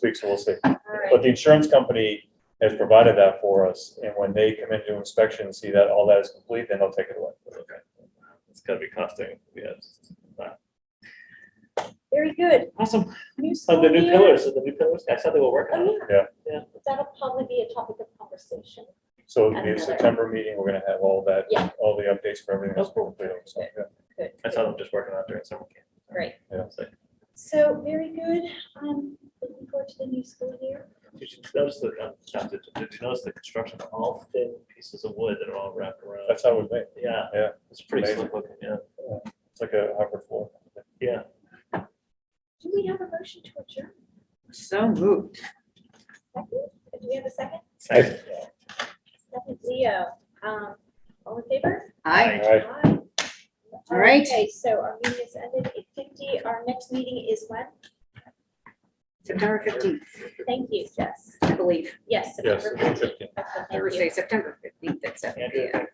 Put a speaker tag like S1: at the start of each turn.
S1: week, so we'll see.
S2: All right.
S1: But the insurance company has provided that for us, and when they come in to inspection, and see that all that is complete, then they'll take it away.
S3: It's gotta be costing, yes.
S2: Very good.
S3: Awesome.
S2: New
S3: So
S2: school
S3: the new
S2: year.
S3: pillars, so the new pillars, I saw they were working on it.
S2: Oh,
S3: Yeah.
S2: That'll probably be a topic of conversation.
S1: So it'll be a September meeting, we're gonna have all that,
S2: Yeah.
S1: all the updates for everything that's completed, so, yeah.
S2: Good.
S3: I saw them just working on it during summer camp.
S2: Great.
S1: Yeah.
S3: It's like,
S2: So very good. Um, looking forward to the new school year.
S3: Did you notice the, uh, not did did you notice the construction of all thin pieces of wood that are all wrapped around?
S1: That's how it was made,
S3: Yeah.
S1: Yeah.
S3: It's pretty
S1: Amazing.
S3: slick looking, yeah,
S1: it's like a hopper floor.
S3: yeah.
S2: Do we have a motion to adjourn?
S4: So moved.
S2: Second? Do we have a second?
S3: Thanks.
S2: Second, Leo. Um, all in favor?
S4: Aye.
S1: All right,
S2: Aye.
S4: All right.
S2: Okay, so our meeting is ended eight fifty. Our next meeting is when?
S4: September fifteenth,
S2: Thank you, Jess.
S4: I believe.
S2: Yes.
S1: yes,
S2: September 15th.
S1: fifteen.
S2: Okay, thank you.
S4: Thursday, September fifteenth at seven
S3: Andrew,
S4: P M.